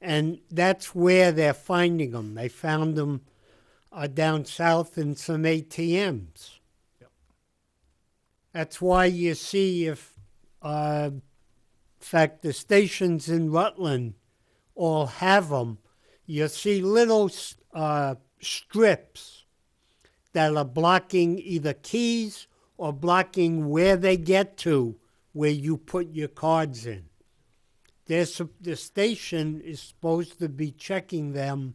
And that's where they're finding them. They found them uh, down south in some ATMs. Yep. That's why you see if, uh, in fact, the stations in Rutland all have them. You see little s- uh, strips that are blocking either keys or blocking where they get to, where you put your cards in. There's, the station is supposed to be checking them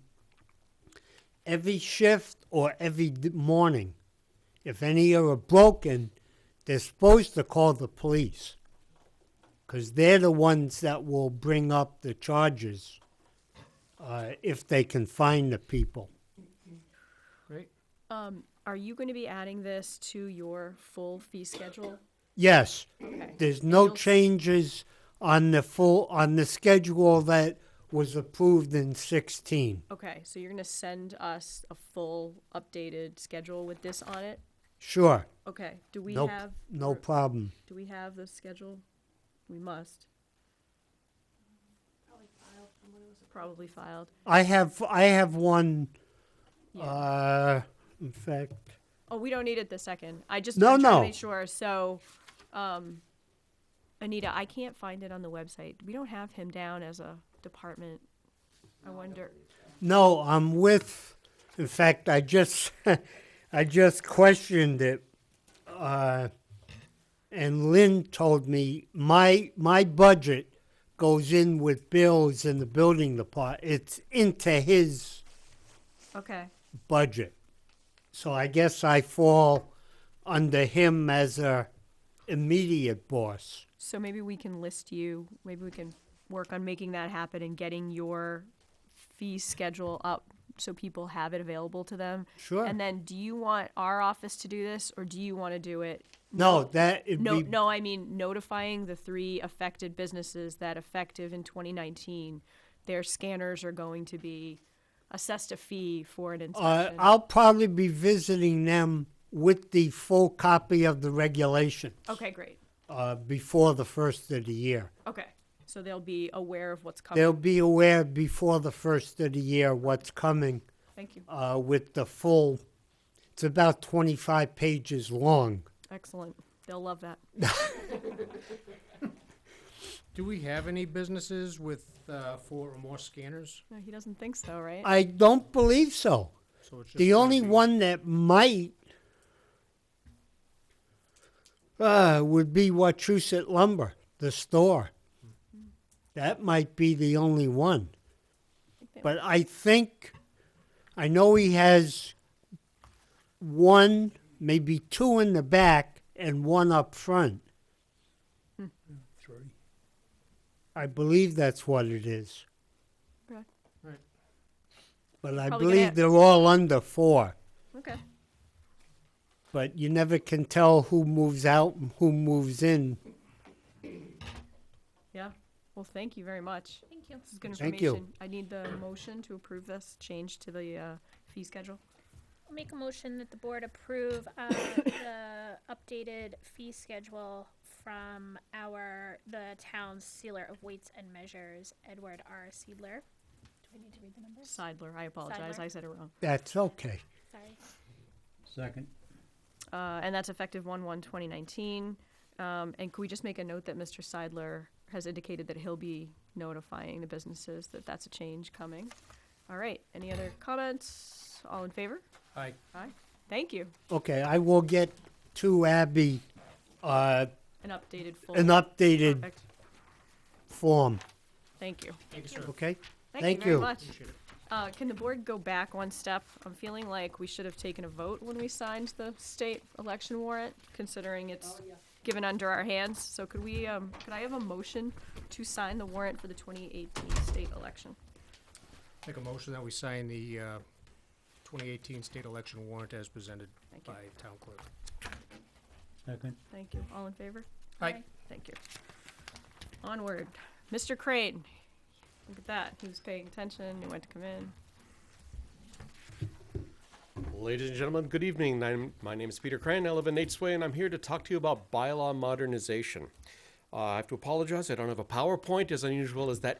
every shift or every d- morning. If any are broken, they're supposed to call the police because they're the ones that will bring up the charges uh, if they can find the people. Great. Um, are you going to be adding this to your full fee schedule? Yes, Okay. there's no You'll- changes on the full on the schedule that was approved in 16. Okay, so you're going to send us a full updated schedule with this on it? Sure, Okay, do we no, have? no or- problem. Do we have the schedule? We must. Probably filed. I have I have one. Yeah. Uh, in fact, Oh, we don't need it the second. I just No, I'm trying to no. make sure. So, um, Anita, I can't find it on the website. We don't have him down as a department. I wonder. No, I'm with. In fact, I just, I just questioned it, uh, and Lynn told me my my budget goes in with bills in the building department. It's into his Okay. budget, so I guess I fall under him as a immediate boss. So maybe we can list you, maybe we can work on making that happen and getting your fee schedule up so people have it available to them. Sure. And then do you want our office to do this or do you want to do it? no, that it'd No, be no, I mean notifying the three affected businesses that effective in 2019, their scanners are going to be assessed a fee for an Uh, inspection. I'll probably be visiting them with the full copy of the regulations. Okay, great. uh, before the first of the year. Okay. So they'll be aware of what's coming. They'll be aware before the first of the year what's coming Thank you. uh, with the full. It's about 25 pages long. Excellent. They'll love that. Do we have any businesses with uh, four or more scanners? No, he doesn't think so, right? I don't believe so. So it's just The gonna only be- one that might uh, would be Wachusett Lumber, the store. That might be the only one. think But I think, I know he has one, maybe two in the back and one up front. Three. I believe that's what it is. Okay. Right. But I Probably believe gonna- they're all under four. Okay. But you never can tell who moves out and who moves in. Yeah. Well, thank you very much. Thank you. This is good Thank you. information. I need the motion to approve this change to the uh, fee schedule. I'll Make a motion that the board approve uh, the updated fee schedule from our, the town's sealer of weights and measures, Edward R. Seidler. Do we need to read the numbers? Seidler, I apologize, Seidler. I said it wrong. That's okay. Sorry. Second. Uh, And that's effective one one twenty nineteen. Um, and could we just make a note that Mr. Seidler has indicated that he'll be notifying the businesses that that's a change coming? All right, any other comments? All in favor? Aye. Aye. Thank you. Okay, I will get to Abby uh, An updated full. an updated Perfect. form. Thank you. Thank you, sir. Okay? Thank Thank you very you. much. Appreciate it. Uh, can the board go back one step? I'm feeling like we should have taken a vote when we signed the state election warrant, considering it's given under our hands. So could we, um, could I have a motion to sign the warrant for the twenty eighteen state election? Make a motion that we sign the uh, 2018 state election warrant as presented Thank you. by town clerk. Second. Thank you. All in favor? Aye. Thank you. Onward. Mr. Crane. Look at that. He was paying attention. He went to come in. Ladies and gentlemen, good evening. I'm- My name is Peter Crane. I live in Nate's Way, and I'm here to talk to you about bylaw modernization. Uh, I have to apologize. I don't have a PowerPoint as unusual as that